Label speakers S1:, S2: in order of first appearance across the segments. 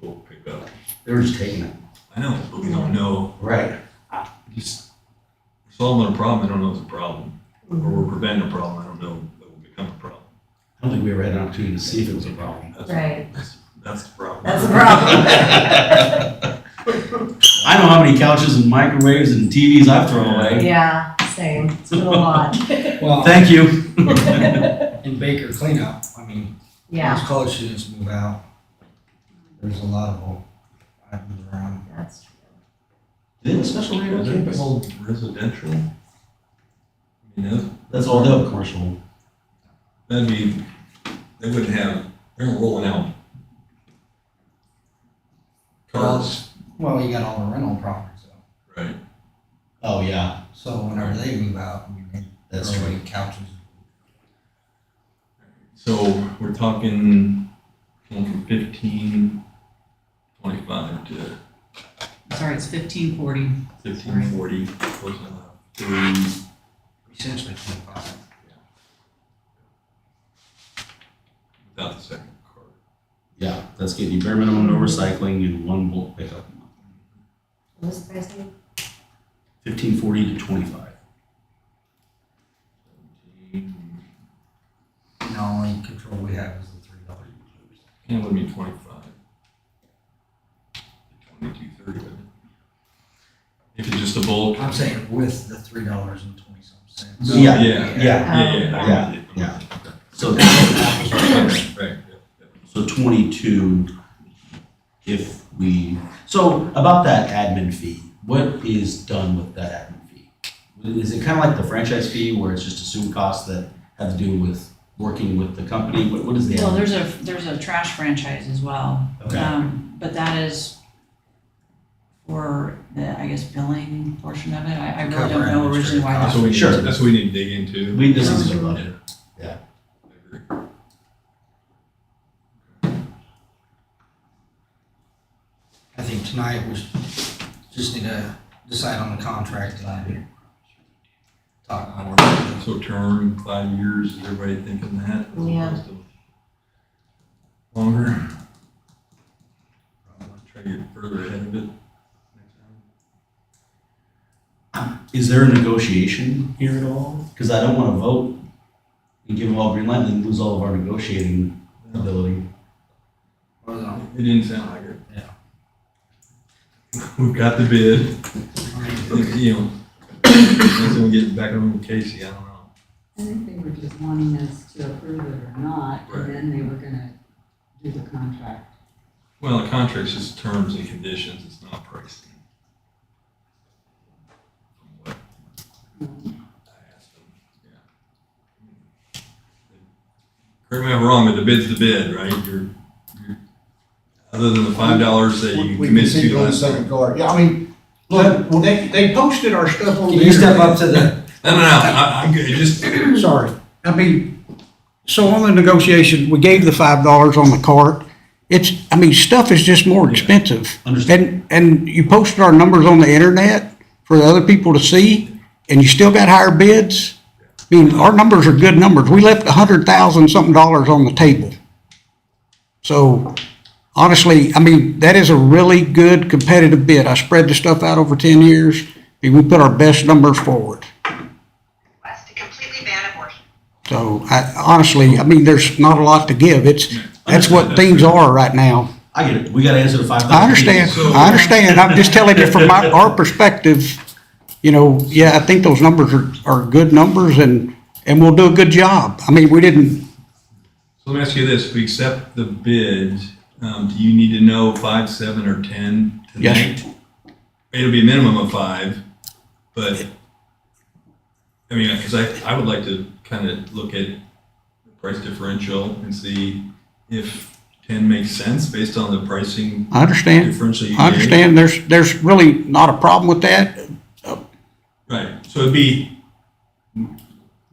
S1: we'll pick up.
S2: They're just taking it.
S1: I know, but we don't know.
S2: Right.
S1: Just solving a problem, I don't know it's a problem. Or we're preventing a problem, I don't know that will become a problem.
S2: I don't think we ever had an opportunity to see if it was a problem.
S1: That's-
S3: Right.
S1: that's- That's the problem.
S3: That's a problem.
S2: I know how many couches and microwaves and TVs I've thrown away.
S3: Yeah, same, it's been a lot,
S4: Well,
S2: Thank you.
S4: in Baker cleanup, I mean,
S3: yeah,
S4: those college students move out. There's a lot of them. I've been around.
S3: that's true.
S2: Did a special rate on
S1: They're
S2: campus?
S1: all residential. You know,
S2: That's all they have commercial.
S1: that'd be, they wouldn't have, they're rolling out. Cars,
S4: Well, you got all the rental properties though.
S1: right,
S2: Oh, yeah.
S4: So whenever they move out, I mean, they
S2: That's
S4: throw away
S2: true.
S4: Couches.
S1: so we're talking going from fifteen twenty-five to
S5: Sorry, it's fifteen forty.
S1: Fifteen forty, close enough. Three,
S4: Essentially twenty-five.
S1: without the second card.
S2: Yeah, that's getting you bare minimum, no recycling, and one bulk pickup.
S3: What was the price again?
S2: Fifteen forty to twenty-five.
S1: Seventeen,
S4: And the only control we have is the three dollars.
S1: Can't let me twenty-five. Twenty-two thirty, wouldn't it? If it's just a bulk.
S4: I'm saying with the three dollars and twenty some cents.
S2: No. Yeah,
S1: Yeah.
S2: Yeah,
S1: Yeah,
S3: Um,
S1: yeah,
S2: Yeah,
S1: I'm with you, I'm with you.
S2: so,
S1: Okay. Right, yeah, yeah.
S2: so twenty-two, if we, so about that admin fee, what is done with that admin fee? Is it kind of like the franchise fee where it's just assumed costs that have to do with working with the company? What, what is the?
S5: Well,
S2: admin?
S5: there's a, there's a trash franchise as well.
S2: Okay,
S5: Um, but that is for the, I guess, billing portion of it. I, I really
S4: Cover
S5: don't know originally why
S4: administrative
S5: that.
S1: That's what we need, that's what we
S2: Sure.
S1: need to dig into.
S2: we, this is about it.
S1: I agree.
S4: I think tonight we should- just need to decide on the contract and talk about it.
S1: So term, five years, is everybody thinking that? as
S3: Yeah.
S1: opposed to Longer? Probably Try to get further ahead of it. next time.
S2: Is there a negotiation here at all? Because I don't want to vote and give them all green light and then lose all of our negotiating ability.
S4: Or the-
S1: It didn't sound like it.
S4: Yeah.
S1: We've got the bid,
S4: I mean,
S1: you know, unless we get back on with Casey, I don't know.
S6: I think they were just wanting us to approve it or not,
S1: Right.
S6: and then they were gonna do the contract.
S1: Well, the contract's just terms and conditions, it's not pricing. From what I asked them, yeah. Correct me if I'm wrong, but the bid's the bid, right? You're, you're, other than the five dollars that
S7: We
S1: you
S7: we can
S1: committed
S7: see
S1: to
S7: on the
S1: last.
S7: second guard. Yeah, I mean, look, well, they, they posted our stuff on
S4: Can
S7: the.
S4: you step
S7: internet.
S4: up to the,
S1: No, no, no, I, I'm good, It just,
S7: Sorry. I mean, so on the negotiation, we gave the five dollars on the cart. It's, I mean, stuff is just more expensive.
S2: Understand?
S7: And, and you posted our numbers on the internet for the other people to see, and you still got higher bids? I mean, our numbers are good numbers. We left a hundred thousand something dollars on the table. So honestly, I mean, that is a really good competitive bid. I spread the stuff out over ten years, and we put our best numbers forward.
S8: was to completely ban abortion.
S7: So I, honestly, I mean, there's not a lot to give. It's, that's what things are right now.
S2: I get it. We got to answer the five.
S7: I understand, I understand. I'm just telling you from my, our perspective, you know, yeah, I think those numbers are, are good numbers and, and we'll do a good job. I mean, we didn't,
S1: So let me ask you this, if we accept the bid, um, do you need to know five, seven, or ten
S7: Yes.
S1: tonight? It'll be a minimum of five, but, I mean, cause I, I would like to kind of look at the price differential and see if ten makes sense based on the pricing
S7: I understand.
S1: differential you
S7: I
S1: gave.
S7: understand. There's, there's really not a problem with that.
S1: Right, so it'd be,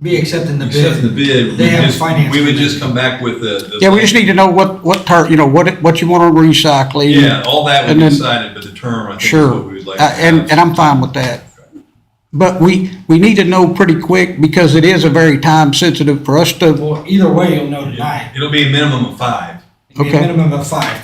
S4: be accepting the bid.
S1: accepting the bid, we
S4: They have a
S1: just,
S4: finance
S1: we would
S4: committee.
S1: just come back with the. the-
S7: Yeah, we just need to know what, what tar, you know, what, it- what you want to recycle.
S1: Yeah, all that would
S7: and
S1: be
S7: then-
S1: decided, but the term, I think, is
S7: Sure.
S1: what we would like. to
S7: Uh, And,
S1: have.
S7: and I'm fine with that. But we, we need to know pretty quick because it is a very time sensitive for us to
S4: Well, either way, you'll know tonight.
S1: It'll be a minimum of five.
S4: It'd be
S7: Okay.
S4: a minimum of five.